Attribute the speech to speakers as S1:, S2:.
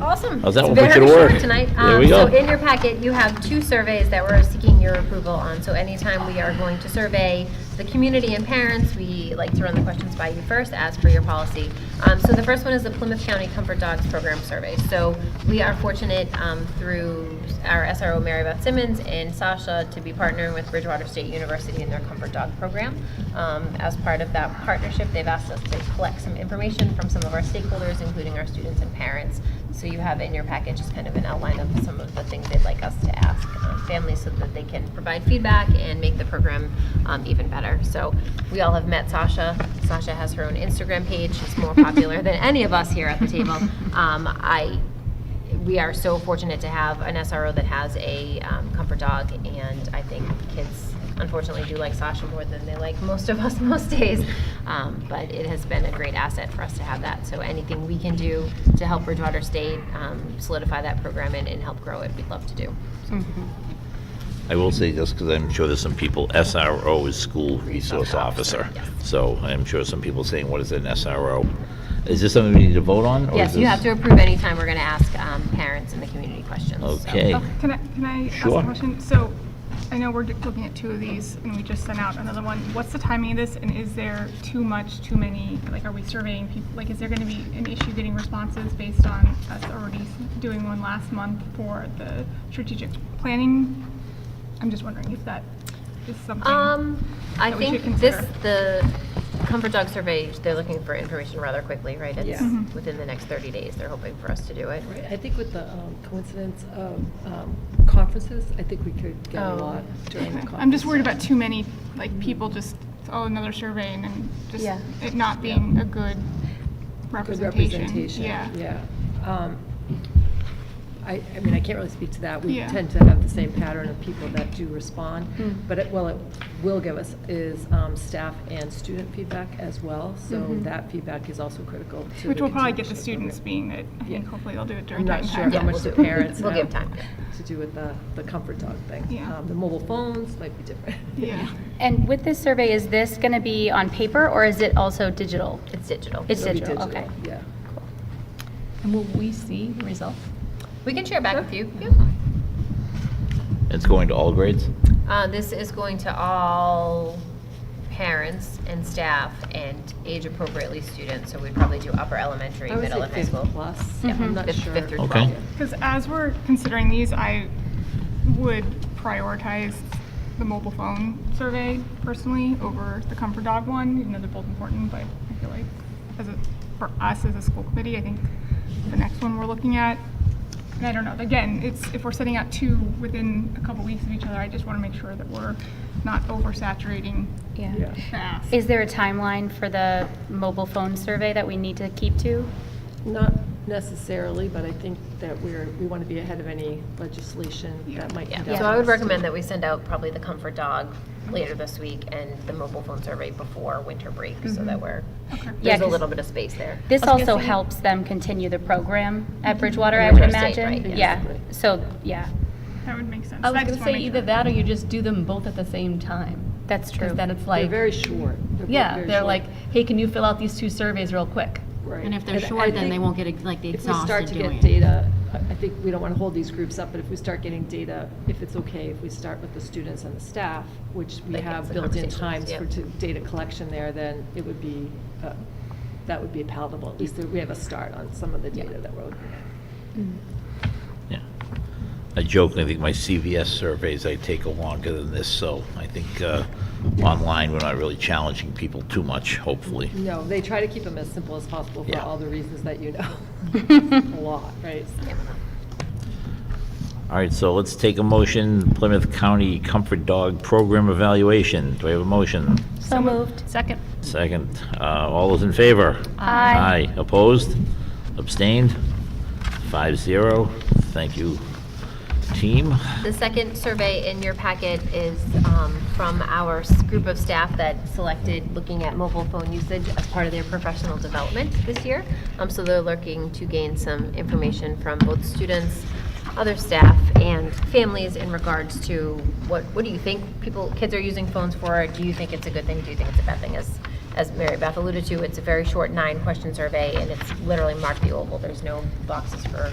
S1: Awesome.
S2: How's that?
S1: It's
S2: We'll
S1: very
S2: make it
S1: short
S2: work.
S1: Tonight.
S2: There
S1: Um,
S2: we
S1: So
S2: go.
S1: in your packet, you have two surveys that we're seeking your approval on. So anytime we are going to survey the community and parents, we like to run the questions by you first, as per your policy. Um, So the first one is the Plymouth County Comfort Dogs Program Survey. So we are fortunate um, through our SRO, Mary Beth Simmons, and Sasha to be partnering with Bridgewater State University in their Comfort Dog Program. Um, As part of that partnership, they've asked us to collect some information from some of our stakeholders, including our students and parents. So you have in your package just kind of an outline of some of the things they'd like us to ask um, families so that they can provide feedback and make the program um, even better. So we all have met Sasha. Sasha has her own Instagram page. She's more popular than any of us here at the table. Um, I we are so fortunate to have an SRO that has a um, comfort dog, and I think kids unfortunately do like Sasha more than they like most of us most days. Um, but it has been a great asset for us to have that. So anything we can do to help Bridgewater State um, solidify that program and, and help grow it, we'd love to do.
S2: I will say, just because I'm sure there's some people, SRO is School Resource Officer.
S1: Officer, yes.
S2: So I'm sure some people saying, what is an SRO? Is this something we need to vote on? or is
S1: yes, you
S2: this-
S1: have to approve anytime we're going to ask um, parents in the community questions. so-
S2: Okay.
S3: Oh, Can I, can I ask
S2: Sure.
S3: a question? So I know we're looking at two of these and we just sent out another one. What's the timing of this and is there too much, too many? Like, are we surveying people? Like, is there going to be an issue getting responses based on us already doing one last month for the strategic planning? I'm just wondering if that is something.
S1: Um, I
S3: that we
S1: think
S3: should
S1: this,
S3: consider.
S1: the comfort dog survey, they're looking for information rather quickly, right? It's
S4: Mm-hmm.
S1: within the next 30 days, they're hoping for us to do it.
S5: Right, I think with the um, coincidence of um, conferences, I think we could get a
S1: Oh.
S5: lot during the conference.
S3: I'm just worried about too many, like, people just, oh, another survey and then just
S1: Yeah.
S3: it not being a good
S5: Good
S3: representation.
S5: representation,
S3: Yeah.
S5: yeah. Um, I, I mean, I can't really speak to that. We
S3: Yeah. Hmm.
S5: tend to have the same pattern of people that do respond. But it, well, it will give us is um, staff and student feedback as well, so that feedback is also critical to.
S3: Mm-hmm. Which
S5: the
S3: we'll probably get the
S5: continuation of
S3: students being that, I think
S5: Yeah.
S3: hopefully they'll do it during
S5: I'm
S3: that
S5: not sure
S3: time.
S5: how
S1: Yeah,
S5: much
S1: we'll
S5: the
S1: do-
S5: parents
S1: we'll
S5: have
S1: give time, yeah.
S5: to do with the, the comfort dog thing.
S3: Yeah.
S5: Um, The mobile phones might be different.
S3: Yeah,
S4: And with this survey, is this going to be on paper or is it also digital?
S1: It's digital.
S4: It's
S5: It'll be
S4: digital, okay.
S5: Yeah.
S6: And will we see the result?
S1: We can share back with you.
S2: It's going to all grades?
S1: Uh, this is going to all parents and staff and age appropriately students, so we'd probably do upper elementary,
S5: I would
S1: middle
S5: say
S1: and high
S5: Oh, fifth
S1: school.
S5: plus. I'm not
S1: Fifth-
S5: sure.
S1: Fifth through
S2: Okay.
S1: 12.
S3: because as we're considering these, I would prioritize the mobile phone survey personally over the comfort dog one, even though they're both important, but I feel like as a, for us as a school committee, I think the next one we're looking at, and I don't know, again, it's, if we're setting out two within a couple weeks of each other, I just want to make sure that we're not oversaturating
S4: Yeah.
S5: Yeah.
S3: the ask.
S4: Is there a timeline for the mobile phone survey that we need to keep to?
S5: Not necessarily, but I think that we're, we want to be ahead of any legislation that might.
S1: Yeah,
S5: come down
S1: so I would
S5: the state.
S1: recommend that we send out probably the comfort dog later this week and the mobile phone survey before winter break, so that we're,
S4: Yeah,
S1: there's a
S4: 'cause-
S1: little bit of space there.
S4: This also helps them continue the program at Bridgewater, I would
S1: Bridgewater State,
S4: imagine.
S1: Mhm. right,
S4: Yeah,
S5: yes.
S4: so, yeah,
S3: That would make sense.
S6: I was
S3: just
S6: going to
S3: wanna
S6: say
S3: make
S6: either
S3: sure.
S6: that or you just do them both at the same time.
S4: that's true.
S6: Because then it's
S5: They're
S6: like,
S5: very short. both
S6: yeah,
S5: very
S6: they're
S5: short.
S6: like, hey, can you fill out these two surveys real quick?
S5: Right.
S7: And if they're
S5: I
S7: short, then they
S5: think
S7: won't get ex- like the
S5: If we
S7: exhausted
S5: start to
S7: doing
S5: get
S7: it.
S5: data, I I think we don't want to hold these groups up, but if we start getting data, if it's okay, if we start with the students and the staff, which we
S1: Like, it's
S5: have
S1: the
S5: built-in
S1: conversations,
S5: times
S1: yeah.
S5: for to- data collection there, then it would be, uh, that would be palatable. At least we have a start on some of the data that we're looking at.
S2: Yeah. I joke, I think my CVS surveys, I take are longer than this, so I think uh, online, we're not really challenging people too much, hopefully.
S5: No, they try to keep them as simple as possible for
S2: Yeah.
S5: all the reasons that you know. A lot, right?
S2: All right, so let's take a motion, Plymouth County Comfort Dog Program Evaluation. Do we have a motion?
S4: So moved.
S6: Second.
S2: Second. Uh, All those in favor?
S4: Aye.
S2: Aye. Opposed? Abstained? Five zero. Thank you, team.
S1: The second survey in your packet is um, from our s- group of staff that selected looking at mobile phone usage as part of their professional development this year. Um, So they're looking to gain some information from both students, other staff, and families in regards to what, what do you think people, kids are using phones for? Do you think it's a good thing? Do you think it's a bad thing? As, as Mary Beth alluded to, it's a very short nine-question survey, and it's literally mark the oval. There's no boxes for